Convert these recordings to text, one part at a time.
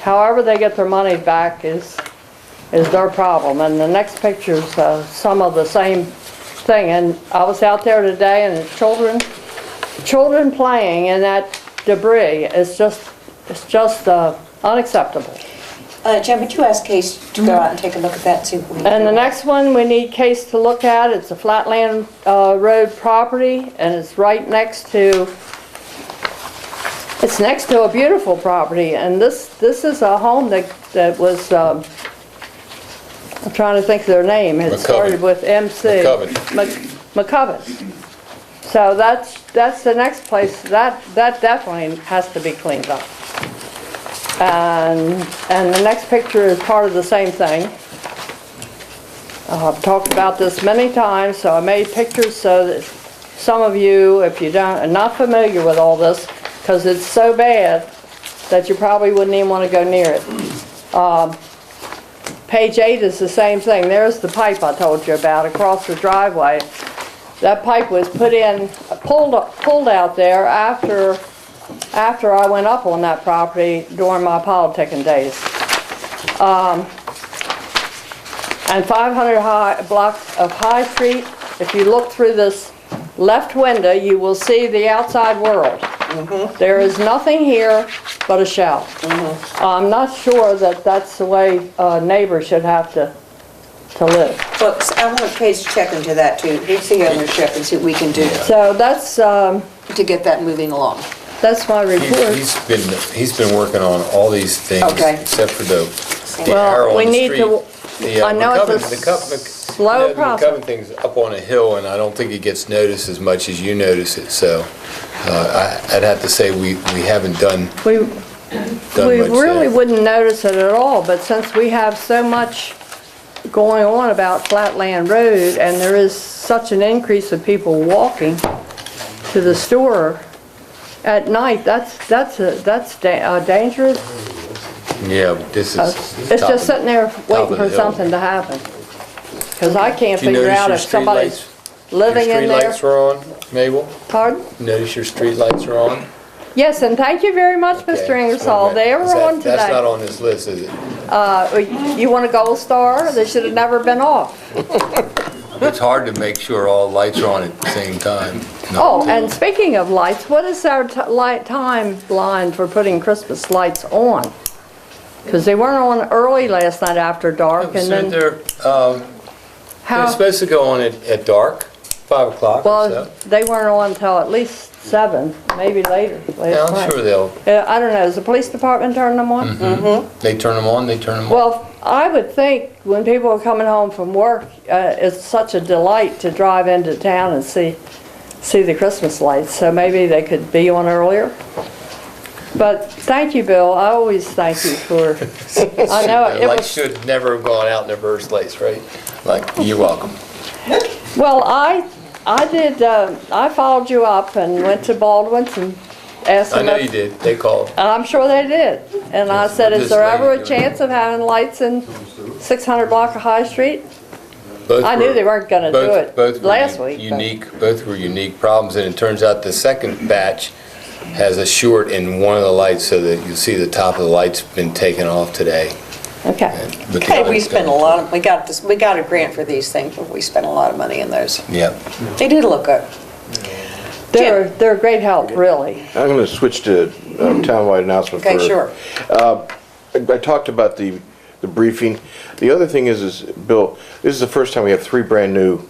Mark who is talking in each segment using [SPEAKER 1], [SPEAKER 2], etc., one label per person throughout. [SPEAKER 1] However they get their money back is, is their problem. And the next picture's uh, some of the same thing. And I was out there today and the children, children playing in that debris is just, it's just uh, unacceptable.
[SPEAKER 2] Uh, Jen, would you ask Case to go out and take a look at that, see what we
[SPEAKER 1] And the
[SPEAKER 2] can do?
[SPEAKER 1] next one we need Case to look at, it's a Flatland uh, Road property, and it's right next to, it's next to a beautiful property, and this, this is a home that, that was, um, I'm trying to think of their name, it
[SPEAKER 3] McCoven.
[SPEAKER 1] started with MC.
[SPEAKER 3] McCoven.
[SPEAKER 1] Mc- McCoven. So that's, that's the next place, that, that definitely has to be cleaned up. And, and the next picture is part of the same thing. Uh, I've talked about this many times, so I made pictures so that some of you, if you don't, are not familiar with all this, because it's so bad that you probably wouldn't even want to go near it. Um, Page eight is the same thing. There's the pipe I told you about across the driveway. That pipe was put in, pulled, pulled out there after, after I went up on that property during my politicking days. Um, and 500 high, blocks of High Street. If you look through this left window, you will see the outside world. There is nothing here but a shell. I'm not sure that that's the way uh, neighbors should have to, to live.
[SPEAKER 2] Well, I want Case to check into that too, he's the ownership, and see what we can do
[SPEAKER 1] So that's, um,
[SPEAKER 2] to get that moving along.
[SPEAKER 1] that's my
[SPEAKER 3] He-
[SPEAKER 1] report.
[SPEAKER 3] He's been, he's been working on all these things,
[SPEAKER 2] Okay.
[SPEAKER 3] except for the, the
[SPEAKER 1] Well,
[SPEAKER 3] arrow
[SPEAKER 1] we
[SPEAKER 3] on the
[SPEAKER 1] need to-
[SPEAKER 3] street. The, uh,
[SPEAKER 1] I know it's a
[SPEAKER 3] McCubbin- the Cup- Mc-
[SPEAKER 1] slow
[SPEAKER 3] the
[SPEAKER 1] process.
[SPEAKER 3] McCubbin thing's up on a hill, and I don't think it gets noticed as much as you notice it, so uh, I- I'd have to say we, we haven't done,
[SPEAKER 1] We,
[SPEAKER 3] done
[SPEAKER 1] we
[SPEAKER 3] much
[SPEAKER 1] really
[SPEAKER 3] there.
[SPEAKER 1] wouldn't notice it at all, but since we have so much going on about Flatland Road and there is such an increase of people walking to the store at night, that's, that's, a- that's da- uh, dangerous.
[SPEAKER 3] Yeah, this is.
[SPEAKER 1] Uh, It's just
[SPEAKER 3] top of-
[SPEAKER 1] sitting there
[SPEAKER 3] top
[SPEAKER 1] waiting
[SPEAKER 3] of
[SPEAKER 1] for
[SPEAKER 3] the hill.
[SPEAKER 1] something to happen. Because I can't
[SPEAKER 3] Do you
[SPEAKER 1] figure
[SPEAKER 3] notice
[SPEAKER 1] out
[SPEAKER 3] your
[SPEAKER 1] if somebody's
[SPEAKER 3] streetlights-
[SPEAKER 1] living in
[SPEAKER 3] Your
[SPEAKER 1] there.
[SPEAKER 3] streetlights are on, Mabel?
[SPEAKER 1] Pardon?
[SPEAKER 3] Notice your streetlights are on?
[SPEAKER 1] Yes, and thank you very much, Mr.
[SPEAKER 3] Okay.
[SPEAKER 1] Ingersoll. They
[SPEAKER 3] Is
[SPEAKER 1] were
[SPEAKER 3] that-
[SPEAKER 1] on today.
[SPEAKER 3] That's not on this list, is it?
[SPEAKER 1] Uh, You want a gold star? They should have never been off.
[SPEAKER 3] It's hard to make sure all lights are on at the same time.
[SPEAKER 1] Oh, and speaking of lights, what is our t- light timeline for putting Christmas lights on? Because they weren't on early last night after dark, and
[SPEAKER 3] So
[SPEAKER 1] then
[SPEAKER 3] they're, um, they're
[SPEAKER 1] how,
[SPEAKER 3] supposed to go on at, at dark, five o'clock or
[SPEAKER 1] well,
[SPEAKER 3] so.
[SPEAKER 1] they weren't on until at least seven, maybe later
[SPEAKER 3] Yeah,
[SPEAKER 1] last
[SPEAKER 3] I'm sure
[SPEAKER 1] night.
[SPEAKER 3] they'll,
[SPEAKER 1] Uh, I don't know, does the police department turn them on?
[SPEAKER 3] Mm-hmm. they turn them on, they turn them off.
[SPEAKER 1] Well, I would think when people are coming home from work, uh, it's such a delight to drive into town and see, see the Christmas lights, so maybe they could be on earlier. But thank you, Bill, I always thank you for, I know,
[SPEAKER 3] The
[SPEAKER 1] it
[SPEAKER 3] lights
[SPEAKER 1] was,
[SPEAKER 3] should never have gone out in the first place, right? Like, you're welcome.
[SPEAKER 1] well, I, I did, uh, I followed you up and went to Baldwin's and asked
[SPEAKER 3] I
[SPEAKER 1] them.
[SPEAKER 3] know
[SPEAKER 1] if-
[SPEAKER 3] you did, they called.
[SPEAKER 1] And I'm sure they did. And I said, is there ever a
[SPEAKER 3] Just-
[SPEAKER 1] chance of having lights in 600 block of High Street?
[SPEAKER 3] Both
[SPEAKER 1] I knew they weren't gonna do
[SPEAKER 3] both-
[SPEAKER 1] it
[SPEAKER 3] both were
[SPEAKER 1] last
[SPEAKER 3] u-
[SPEAKER 1] week, but-
[SPEAKER 3] Unique, both were unique problems, and it turns out the second batch has a short in one of the lights, so that you see the top of the light's been taken off today.
[SPEAKER 1] Okay.
[SPEAKER 3] But the
[SPEAKER 2] Okay, we
[SPEAKER 3] lights
[SPEAKER 2] spent a
[SPEAKER 3] don't-
[SPEAKER 2] lot of, we got this, we got a grant for these things, but we spent a lot of money in those.
[SPEAKER 3] Yep.
[SPEAKER 2] They did look good.
[SPEAKER 1] They're, they're a great help, really.
[SPEAKER 4] I'm going to switch to uh, townwide announcement for...
[SPEAKER 2] Mm. Okay, sure.
[SPEAKER 4] I I talked about the, the briefing. The other thing is, is, Bill, this is the first time we have three brand-new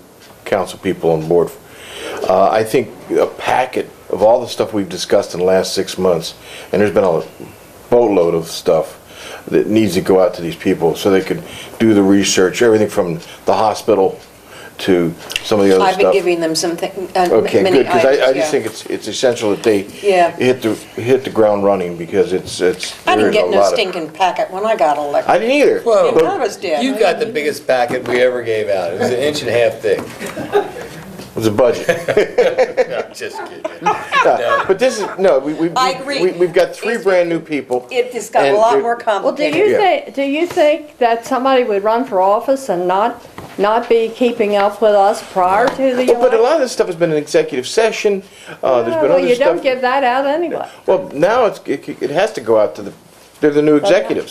[SPEAKER 4] council people on board. Uh, I think a packet of all the stuff we've discussed in the last six months, and there's been a boatload of stuff that needs to go out to these people so they could do the research, everything from the hospital to some of the other stuff.
[SPEAKER 2] I've been giving them some, thi- uh,
[SPEAKER 4] Okay,
[SPEAKER 2] many
[SPEAKER 4] good, because
[SPEAKER 2] items,
[SPEAKER 4] I, I
[SPEAKER 2] yeah.
[SPEAKER 4] just think it's, it's essential that they
[SPEAKER 2] Yeah.
[SPEAKER 4] hit the, hit the ground running, because it's, it's.
[SPEAKER 2] I didn't
[SPEAKER 4] there's
[SPEAKER 2] get
[SPEAKER 4] a
[SPEAKER 2] no
[SPEAKER 4] lot of-
[SPEAKER 2] stinking packet when I got elected.
[SPEAKER 4] I didn't either.
[SPEAKER 3] Whoa.
[SPEAKER 4] but-
[SPEAKER 2] None of us did.
[SPEAKER 3] You got the biggest packet we ever gave out. It was an inch and a half thick.
[SPEAKER 4] It was a budget.
[SPEAKER 3] No, just kidding.
[SPEAKER 4] No, But this is, no, we, we.
[SPEAKER 2] I agree.
[SPEAKER 4] we- We've got three
[SPEAKER 2] It's-
[SPEAKER 4] brand-new people.
[SPEAKER 2] It just got a
[SPEAKER 4] and
[SPEAKER 2] lot
[SPEAKER 4] they're-
[SPEAKER 2] more
[SPEAKER 1] Well, do
[SPEAKER 2] complicated.
[SPEAKER 1] you
[SPEAKER 4] Yeah.
[SPEAKER 1] think, do you think that somebody would run for office and not, not be keeping up with us prior to the
[SPEAKER 4] Well, But a
[SPEAKER 1] election?
[SPEAKER 4] lot of this stuff has been in executive session, uh, there's been
[SPEAKER 1] Well,
[SPEAKER 4] other
[SPEAKER 1] you don't
[SPEAKER 4] stuff.
[SPEAKER 1] give that out anyway.
[SPEAKER 4] Well, now it's, it, it has to go out to the They're the new executives.